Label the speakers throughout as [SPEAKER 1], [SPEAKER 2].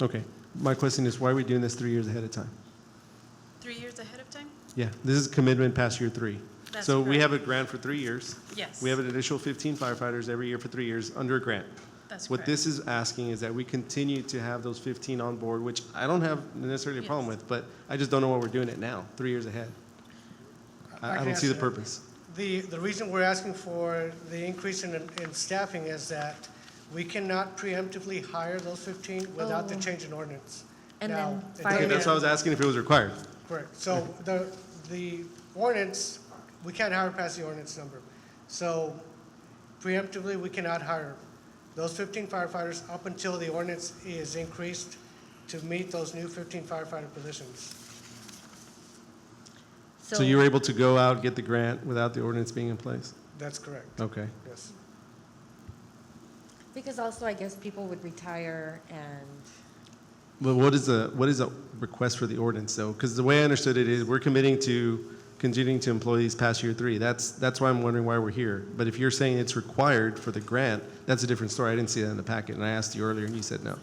[SPEAKER 1] Okay. My question is, why are we doing this three years ahead of time?
[SPEAKER 2] Three years ahead of time?
[SPEAKER 1] Yeah, this is commitment past year three.
[SPEAKER 2] That's
[SPEAKER 1] So we
[SPEAKER 2] correct.
[SPEAKER 1] have a grant for three years.
[SPEAKER 2] Yes.
[SPEAKER 1] We have an additional 15 firefighters every year for three years under a grant.
[SPEAKER 2] That's
[SPEAKER 1] What
[SPEAKER 2] correct.
[SPEAKER 1] this is asking is that we continue to have those 15 on board, which I don't have necessarily a problem
[SPEAKER 2] Yes.
[SPEAKER 1] with, but I just don't know why we're doing it now, three years ahead.
[SPEAKER 3] I
[SPEAKER 1] I I
[SPEAKER 3] can
[SPEAKER 1] don't see the
[SPEAKER 3] answer that.
[SPEAKER 1] purpose.
[SPEAKER 3] The, the reason we're asking for the increase in, in staffing is that we cannot preemptively hire those 15 without the
[SPEAKER 4] Oh.
[SPEAKER 3] change in ordinance.
[SPEAKER 4] And
[SPEAKER 3] Now,
[SPEAKER 4] then
[SPEAKER 3] it
[SPEAKER 4] fire-
[SPEAKER 1] Okay, that's why I was asking if it was required.
[SPEAKER 3] doesn't- Correct. So the, the ordinance, we can't hire past the ordinance number. So preemptively, we cannot hire those 15 firefighters up until the ordinance is increased to meet those new 15 firefighter positions.
[SPEAKER 1] So you were able to go out, get the grant without the ordinance being in place?
[SPEAKER 3] That's correct.
[SPEAKER 1] Okay.
[SPEAKER 3] Yes.
[SPEAKER 4] Because also, I guess people would retire and,
[SPEAKER 1] But what is the, what is the request for the ordinance though? Because the way I understood it is we're committing to continuing to employ these past year three. That's, that's why I'm wondering why we're here. But if you're saying it's required for the grant, that's a different story. I didn't see that in the packet and I asked you earlier and you said no.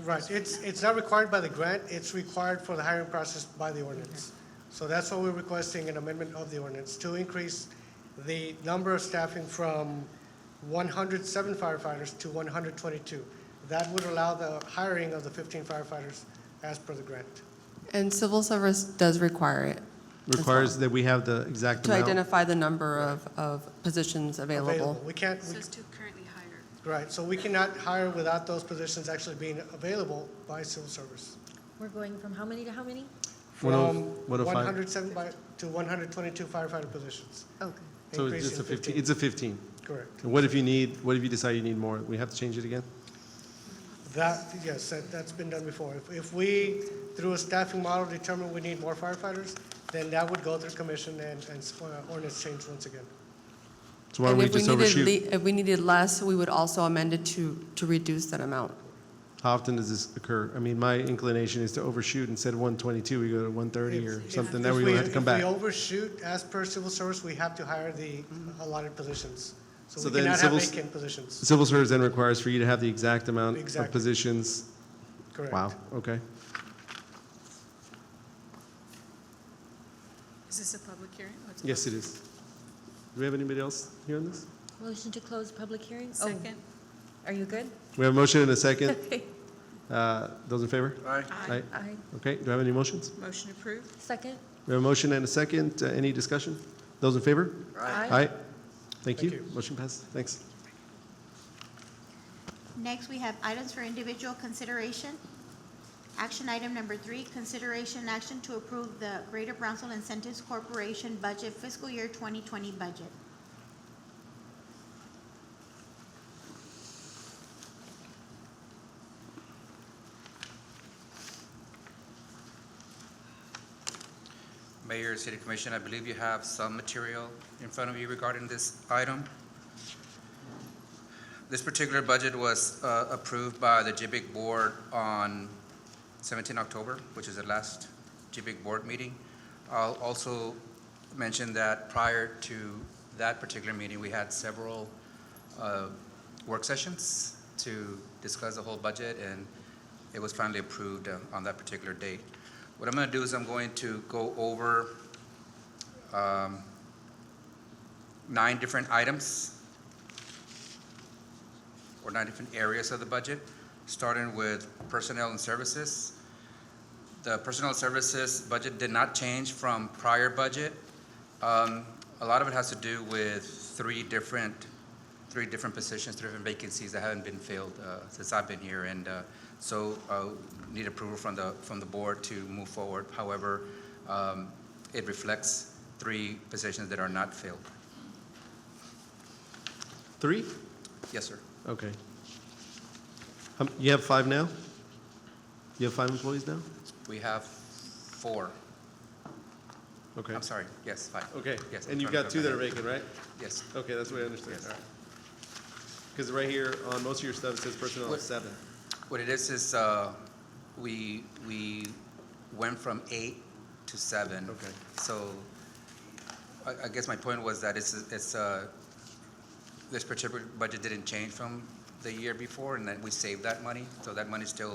[SPEAKER 3] Right, it's, it's not required by the grant, it's required for the hiring process by the ordinance. So that's why we're requesting an amendment of the ordinance to increase the number of staffing from 107 firefighters to 122. That would allow the hiring of the 15 firefighters as per the grant.
[SPEAKER 5] And civil service does require it. as
[SPEAKER 1] Requires
[SPEAKER 5] well,
[SPEAKER 1] that we have the exact
[SPEAKER 5] To
[SPEAKER 1] amount.
[SPEAKER 5] identify the number of, of positions available.
[SPEAKER 3] We can't,
[SPEAKER 2] So
[SPEAKER 3] we-
[SPEAKER 2] it's to currently hire.
[SPEAKER 3] right, so we cannot hire without those positions actually being available by civil service.
[SPEAKER 4] we're going from how many to how many?
[SPEAKER 1] One
[SPEAKER 3] From
[SPEAKER 1] oh- one oh five.
[SPEAKER 3] 107 by- to 122 firefighter positions.
[SPEAKER 4] Okay.
[SPEAKER 1] So it's
[SPEAKER 3] Increase
[SPEAKER 1] just
[SPEAKER 3] in
[SPEAKER 1] a fifteen, it's a fifteen.
[SPEAKER 3] Correct.
[SPEAKER 1] And what if you need, what if you decide you need more? We have to change it again?
[SPEAKER 3] That, yes, that, that's been done before. If, if we, through a staffing model, determine we need more firefighters, then that would go through commission and, and s- uh, ordinance change once again.
[SPEAKER 1] So why don't
[SPEAKER 5] And
[SPEAKER 1] we
[SPEAKER 5] if we
[SPEAKER 1] just
[SPEAKER 5] needed
[SPEAKER 1] overshoot?
[SPEAKER 5] le- If we needed less, we would also amend it to, to reduce that amount.
[SPEAKER 1] How often does this occur? I mean, my inclination is to overshoot instead of one twenty-two, we go to one thirty or
[SPEAKER 3] If-
[SPEAKER 1] something.
[SPEAKER 3] if-
[SPEAKER 1] That
[SPEAKER 3] if
[SPEAKER 1] way we have to come back.
[SPEAKER 3] If we overshoot, as per civil service, we have to hire the allotted positions.
[SPEAKER 1] So
[SPEAKER 3] So we
[SPEAKER 1] then
[SPEAKER 3] cannot have
[SPEAKER 1] civil s-
[SPEAKER 3] vacant positions.
[SPEAKER 1] Civil service then requires for you to have the exact amount of
[SPEAKER 3] Exactly.
[SPEAKER 1] positions.
[SPEAKER 3] Correct.
[SPEAKER 1] Wow, okay.
[SPEAKER 2] Is this a public hearing? What's a
[SPEAKER 1] Yes,
[SPEAKER 2] public-
[SPEAKER 1] it is. Do we have anybody else here on this?
[SPEAKER 4] Motion to close public hearing? Oh,
[SPEAKER 2] Second?
[SPEAKER 4] Are you good?
[SPEAKER 1] We have a motion and a second.
[SPEAKER 4] Okay.
[SPEAKER 1] Uh, Those in favor?
[SPEAKER 2] Aye.
[SPEAKER 4] Aye.
[SPEAKER 1] Okay, do I have any motions?
[SPEAKER 2] Motion approved?
[SPEAKER 4] Second?
[SPEAKER 1] We have a motion and a second. Uh, Any discussion? Those in favor? Aye. Thank
[SPEAKER 3] Thank
[SPEAKER 1] you.
[SPEAKER 3] you.
[SPEAKER 1] Motion passed. Thanks.
[SPEAKER 6] Next, we have items for individual consideration. Action item number three, consideration and action to approve the Greater Brownsville Incentives Corporation Budget Fiscal Year 2020 Budget.
[SPEAKER 7] Mayor, City Commission, I believe you have some material in front of you regarding this item. This particular budget was uh, approved by the JBIC Board on 17 October, which is the last JBIC Board meeting. I'll also mention that prior to that particular meeting, we had several uh, work sessions to discuss the whole budget, and it was finally approved uh, on that particular date. What I'm going to do is I'm going to go over um, nine different items or nine different areas of the budget, starting with personnel and services. The personnel services budget did not change from prior budget. Um, A lot of it has to do with three different, three different positions, three different vacancies that haven't been filled uh, since I've been here. And uh, so uh, need approval from the, from the board to move forward. However, um, it reflects three positions that are not filled.
[SPEAKER 1] Three?
[SPEAKER 7] Yes, sir.
[SPEAKER 1] Okay. Um, You have five now? You have five employees now?
[SPEAKER 7] We have four.
[SPEAKER 1] Okay.
[SPEAKER 7] I'm sorry. Yes, five.
[SPEAKER 1] Okay.
[SPEAKER 7] Yes.
[SPEAKER 1] And you've got two that are vacant, right?
[SPEAKER 7] Yes.
[SPEAKER 1] Okay, that's what I understood.
[SPEAKER 7] Yes.
[SPEAKER 1] Because right here on most of your stuff, it says personnel
[SPEAKER 7] What-
[SPEAKER 1] is seven.
[SPEAKER 7] What it is, is uh, we, we went from eight to seven.
[SPEAKER 1] Okay.
[SPEAKER 7] So I, I guess my point was that it's, it's, uh, this particular budget didn't change from the year before, and then we saved that money, so that money's still